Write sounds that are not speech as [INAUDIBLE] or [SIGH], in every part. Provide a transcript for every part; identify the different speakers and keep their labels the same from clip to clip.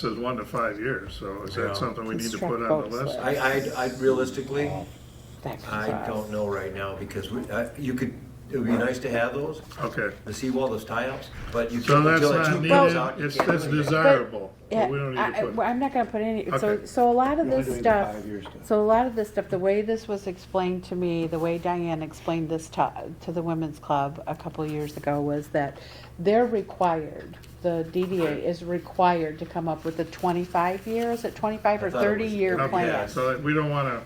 Speaker 1: says one to five years, so is
Speaker 2: Yeah.
Speaker 1: that something we need to
Speaker 3: Construct
Speaker 1: put on the
Speaker 3: boats
Speaker 1: list?
Speaker 3: there.
Speaker 2: I, I, I realistically,
Speaker 3: That comes
Speaker 2: I
Speaker 3: out.
Speaker 2: don't know right now because we, I, you could, it would be nice to have those,
Speaker 1: Okay,
Speaker 2: the seawall, those tie-ups, but you
Speaker 1: so
Speaker 2: can,
Speaker 1: that's
Speaker 2: until that
Speaker 1: not
Speaker 2: tube comes out,
Speaker 1: needed,
Speaker 2: you
Speaker 1: it's
Speaker 2: can't
Speaker 1: just
Speaker 2: really get it.
Speaker 1: desirable,
Speaker 3: Yeah,
Speaker 1: but we don't need
Speaker 3: I,
Speaker 1: to
Speaker 3: I- well,
Speaker 1: put.
Speaker 3: I'm not gonna put any, so,
Speaker 1: Okay.
Speaker 3: so a lot of
Speaker 4: You're only
Speaker 3: this
Speaker 4: doing the
Speaker 3: stuff,
Speaker 4: five years then.
Speaker 3: so a lot of this stuff, the way this was explained to me, the way Diane explained this to, to the women's club a couple of years ago was that they're required, the DDA is required to come up with a twenty-five year, is it twenty-five
Speaker 2: I
Speaker 3: or
Speaker 2: thought it was-
Speaker 3: thirty-year
Speaker 2: your
Speaker 1: Okay,
Speaker 3: plan?
Speaker 2: plans.
Speaker 1: so that we don't wanna,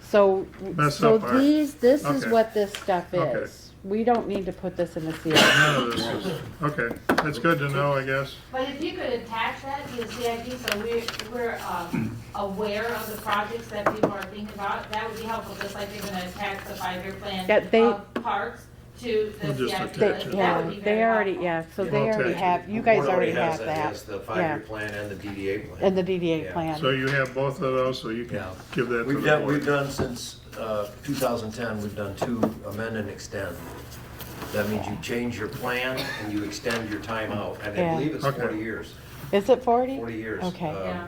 Speaker 3: So,
Speaker 1: Mess
Speaker 3: so
Speaker 1: up our-
Speaker 3: these, this is
Speaker 1: okay.
Speaker 3: what this stuff
Speaker 1: Okay.
Speaker 3: is. We don't need to put this in the CIP.
Speaker 1: none of this is, okay, that's good to know, I guess.
Speaker 5: But if you could attach that to the CIP, so we're, we're, um, aware of the projects that people are thinking about, that would be helpful, just like they're gonna attach the five-year plan
Speaker 3: Yeah, they-
Speaker 5: of parks to the
Speaker 1: We'll just
Speaker 5: CIP.
Speaker 1: attach
Speaker 3: They,
Speaker 1: it.
Speaker 5: That
Speaker 3: yeah,
Speaker 5: would be very
Speaker 3: they already,
Speaker 5: helpful.
Speaker 3: yeah, so
Speaker 1: Yeah.
Speaker 3: they
Speaker 1: Okay.
Speaker 3: already have, you
Speaker 2: The
Speaker 3: guys
Speaker 2: board
Speaker 3: already
Speaker 2: has
Speaker 3: have that.
Speaker 2: as the
Speaker 3: Yeah.
Speaker 2: five-year plan and the DDA plan.
Speaker 3: And the DDA
Speaker 2: Yeah.
Speaker 1: So
Speaker 3: plan.
Speaker 1: you have both of those, so you can
Speaker 2: Yeah.
Speaker 1: give that to
Speaker 2: We've
Speaker 1: the
Speaker 2: done, we've
Speaker 1: board.
Speaker 2: done since uh, 2010, we've done two amend and extend. That means you change your plan and you extend your time out, and
Speaker 3: Yeah.
Speaker 2: I believe it's
Speaker 1: Okay.
Speaker 2: 40 years,
Speaker 3: Is it forty?
Speaker 2: 40 years. uh,
Speaker 3: Okay.
Speaker 5: Yeah.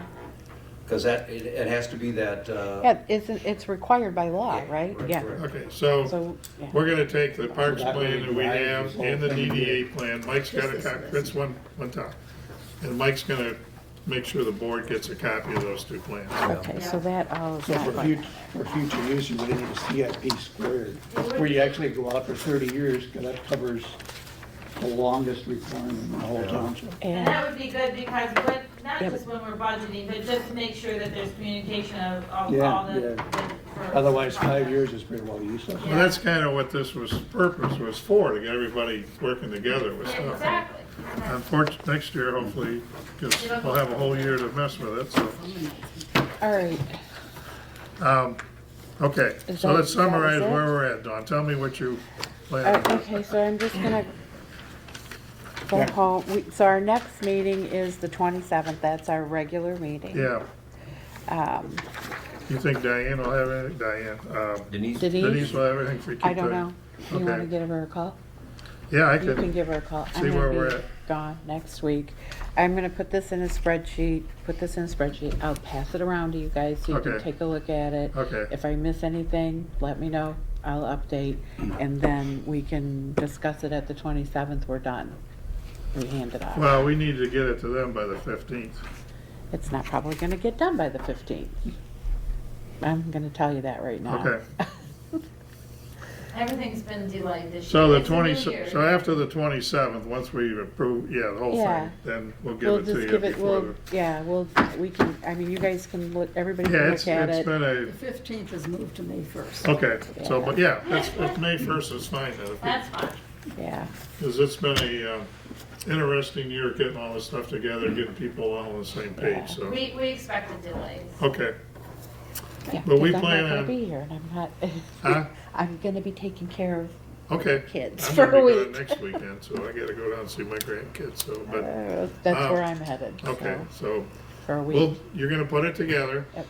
Speaker 2: Because that, it, it has to be that, uh,
Speaker 3: Yeah, it's, it's required by law,
Speaker 2: Yeah,
Speaker 3: right?
Speaker 2: right,
Speaker 3: Yeah.
Speaker 2: correct.
Speaker 1: Okay, so
Speaker 3: So, yeah.
Speaker 1: we're gonna take the parks
Speaker 4: That way
Speaker 1: plan that we
Speaker 4: divide
Speaker 1: have
Speaker 4: this whole
Speaker 1: and the
Speaker 4: thing.
Speaker 1: DDA plan, Mike's got a copy, that's one, one top. And Mike's gonna make sure the board gets a copy of those two plans.
Speaker 3: Okay, so that, all is
Speaker 4: So
Speaker 3: that
Speaker 4: for
Speaker 3: one.
Speaker 4: future, for future use, you would need a CIP squared,
Speaker 5: It would-
Speaker 4: where you actually go out for thirty years, because that covers the longest requirement in the whole township.
Speaker 5: And
Speaker 3: And,
Speaker 5: that would be good, because when, not
Speaker 3: Yeah,
Speaker 5: just when we're budgeting, but just make sure that there's communication of, of
Speaker 4: Yeah,
Speaker 5: all the.
Speaker 4: yeah.
Speaker 5: the- for-
Speaker 4: Otherwise, five
Speaker 5: projects.
Speaker 4: years is pretty well useless.
Speaker 1: Well, that's kinda what this was, purpose was for, to get everybody working together with
Speaker 5: Yeah,
Speaker 1: stuff.
Speaker 5: Exactly.
Speaker 1: Unfortunately, next year hopefully, because we'll have a whole year to mess with it, so.
Speaker 3: all right,
Speaker 1: Um, Okay,
Speaker 3: Is
Speaker 1: so let's
Speaker 3: that- that was
Speaker 1: summarize
Speaker 3: it?
Speaker 1: where we're at, Dawn. Tell me what you
Speaker 3: all
Speaker 1: plan.
Speaker 3: right, Uh, okay, so I'm just gonna go home. We- So our next meeting is the twenty-seventh, that's our regular meeting.
Speaker 1: Yeah,
Speaker 3: Um,
Speaker 1: you think Diane will have anything? Diane, um,
Speaker 2: Denise,
Speaker 1: Denise
Speaker 3: Denise,
Speaker 1: will have anything for you?
Speaker 3: I don't know. You
Speaker 1: Okay.
Speaker 3: wanna give her a call?
Speaker 1: Yeah, I
Speaker 3: You can
Speaker 1: could,
Speaker 3: give her a call. I'm
Speaker 1: see
Speaker 3: gonna
Speaker 1: where we're
Speaker 3: be
Speaker 1: at.
Speaker 3: Gone next week. I'm gonna put this in a spreadsheet, put this in a spreadsheet. I'll pass it around to you guys so you can
Speaker 1: Okay.
Speaker 3: take a look at it.
Speaker 1: Okay.
Speaker 3: If I miss anything, let me know. I'll update and then we can discuss it at the twenty-seventh. We're done. We hand it off.
Speaker 1: well, we need to get it to them by the fifteenth.
Speaker 3: It's not probably gonna get done by the fifteenth. I'm gonna tell you that right now. [LAUGHS]
Speaker 1: Okay.
Speaker 5: Everything's been delayed this year.
Speaker 1: So the
Speaker 5: It's a new
Speaker 1: twenty,
Speaker 5: year.
Speaker 1: so after the twenty-seventh, once we approve, yeah, the whole
Speaker 3: Yeah.
Speaker 1: thing, then we'll give
Speaker 3: We'll
Speaker 1: it to
Speaker 3: just
Speaker 1: you
Speaker 3: give it,
Speaker 1: before
Speaker 3: we'll,
Speaker 1: the.
Speaker 3: yeah, we'll, we can, I mean, you guys can look, everybody
Speaker 1: Yeah,
Speaker 3: can
Speaker 1: it's,
Speaker 3: look at
Speaker 1: it's
Speaker 3: it.
Speaker 1: been a,
Speaker 6: Fifteenth is moved to May first.
Speaker 1: okay, so, but yeah, it's, it's May first is fine then. if we-
Speaker 5: That's fine.
Speaker 3: Yeah.
Speaker 1: Because it's been a uh, interesting year getting all this stuff together, getting people all on the same page, so,
Speaker 5: We, we expected delays.
Speaker 1: okay.
Speaker 3: Yeah,
Speaker 1: But we
Speaker 3: 'cause
Speaker 1: plan
Speaker 3: I'm not
Speaker 1: on-
Speaker 3: gonna be here, and I'm
Speaker 1: Huh?
Speaker 3: not, [LAUGHS] I'm gonna be taking care of
Speaker 1: Okay.
Speaker 3: Kids
Speaker 1: I'm
Speaker 3: for
Speaker 1: gonna be
Speaker 3: a
Speaker 1: gone
Speaker 3: week.
Speaker 1: Next weekend, so I gotta go down and see my grandkids, so, but,
Speaker 3: Uh, That's
Speaker 1: Oh.
Speaker 3: where I'm headed,
Speaker 1: okay,
Speaker 3: so,
Speaker 1: so,
Speaker 3: for a
Speaker 1: well,
Speaker 3: week.
Speaker 1: you're gonna put it together.
Speaker 3: Yep.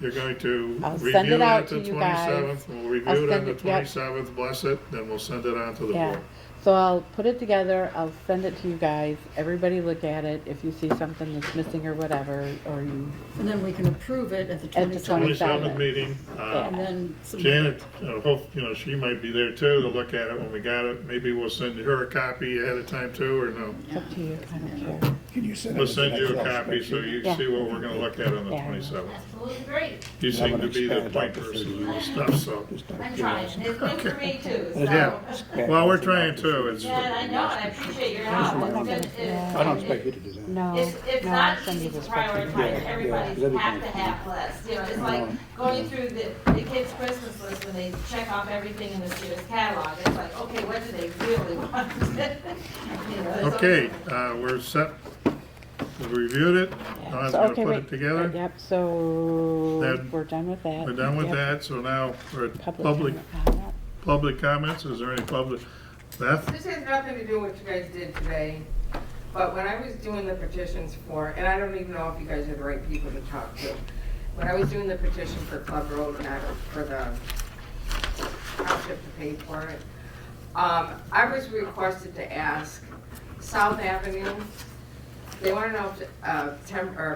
Speaker 1: You're going to
Speaker 3: I'll
Speaker 1: review
Speaker 3: send it
Speaker 1: it
Speaker 3: out
Speaker 1: at
Speaker 3: to
Speaker 1: the
Speaker 3: you guys.
Speaker 1: twenty-seventh, we'll
Speaker 3: I'll
Speaker 1: review it on
Speaker 3: send
Speaker 1: the
Speaker 3: it- yep.
Speaker 1: twenty-seventh, bless it, then we'll send it on to the
Speaker 3: Yeah,
Speaker 1: board.
Speaker 3: so I'll put it together, I'll send it to you guys, everybody look at it, if you see something that's missing or whatever, or you,
Speaker 6: And then we can approve it at the
Speaker 3: At the
Speaker 6: twenty-seventh.
Speaker 3: 27th.
Speaker 1: Twenty-seventh meeting, uh,
Speaker 6: And then. some-
Speaker 1: Janet, I hope, you know, she might be there too to look at it when we got it. Maybe we'll send her a copy ahead of time too, or no?
Speaker 3: it's up to you, I don't care.
Speaker 4: Can you send?
Speaker 1: We'll
Speaker 4: it to
Speaker 1: send you a
Speaker 4: Excel
Speaker 1: copy so
Speaker 4: spreadsheet?
Speaker 1: you
Speaker 3: Yeah.
Speaker 1: see what we're gonna look at on the
Speaker 3: Yeah.
Speaker 1: twenty-seventh.
Speaker 5: Absolutely great.
Speaker 1: You
Speaker 4: Yeah, I'm
Speaker 1: seem to
Speaker 4: gonna
Speaker 1: be the
Speaker 4: expand it out
Speaker 1: point
Speaker 4: to
Speaker 1: person
Speaker 4: 30
Speaker 1: of this stuff, so.
Speaker 4: Just out of
Speaker 5: I'm trying.
Speaker 4: curiosity.
Speaker 5: It's good for me too, so.
Speaker 1: Yeah.
Speaker 4: Expand
Speaker 1: Well,
Speaker 4: it
Speaker 1: we're
Speaker 4: out to
Speaker 1: trying
Speaker 4: 30.
Speaker 1: to, it's-
Speaker 5: Yeah, and I know, and I appreciate your help. It's been- it-
Speaker 4: I don't expect you to do that.
Speaker 3: No, no,
Speaker 5: It's, it's
Speaker 3: I'll
Speaker 5: not
Speaker 3: send
Speaker 5: easy
Speaker 3: you
Speaker 5: to
Speaker 3: the spreadsheet.
Speaker 5: prioritize
Speaker 4: yeah, that'd
Speaker 5: everybody's
Speaker 4: be Mm-hmm.
Speaker 5: have to
Speaker 4: nice.
Speaker 5: have list, you know, it's like going through the, the kids' Christmas list when they check off everything in this year's catalog, it's like, okay, what do they really [LAUGHS] want? You know, there's
Speaker 1: Okay,
Speaker 5: always-
Speaker 1: uh, we're set. We reviewed it.
Speaker 3: Yeah,
Speaker 1: Don's
Speaker 3: so-
Speaker 1: gonna
Speaker 3: okay,
Speaker 1: put
Speaker 3: wait,
Speaker 1: it together.
Speaker 3: Yep, so,
Speaker 1: Then
Speaker 3: we're done with that.
Speaker 1: We're done with
Speaker 3: Yep.
Speaker 1: that, so now we're at public,
Speaker 3: comment, comment.
Speaker 1: public comments. Is there any public? Beth?
Speaker 7: This has nothing to do with what you guys did today, but when I was doing the petitions for, and I don't even know if you guys are the right people to talk to. When I was doing the petition for Club Road and I, for the township to pay for it, um, I was requested to ask South Avenue, they want to know if, uh, temp, or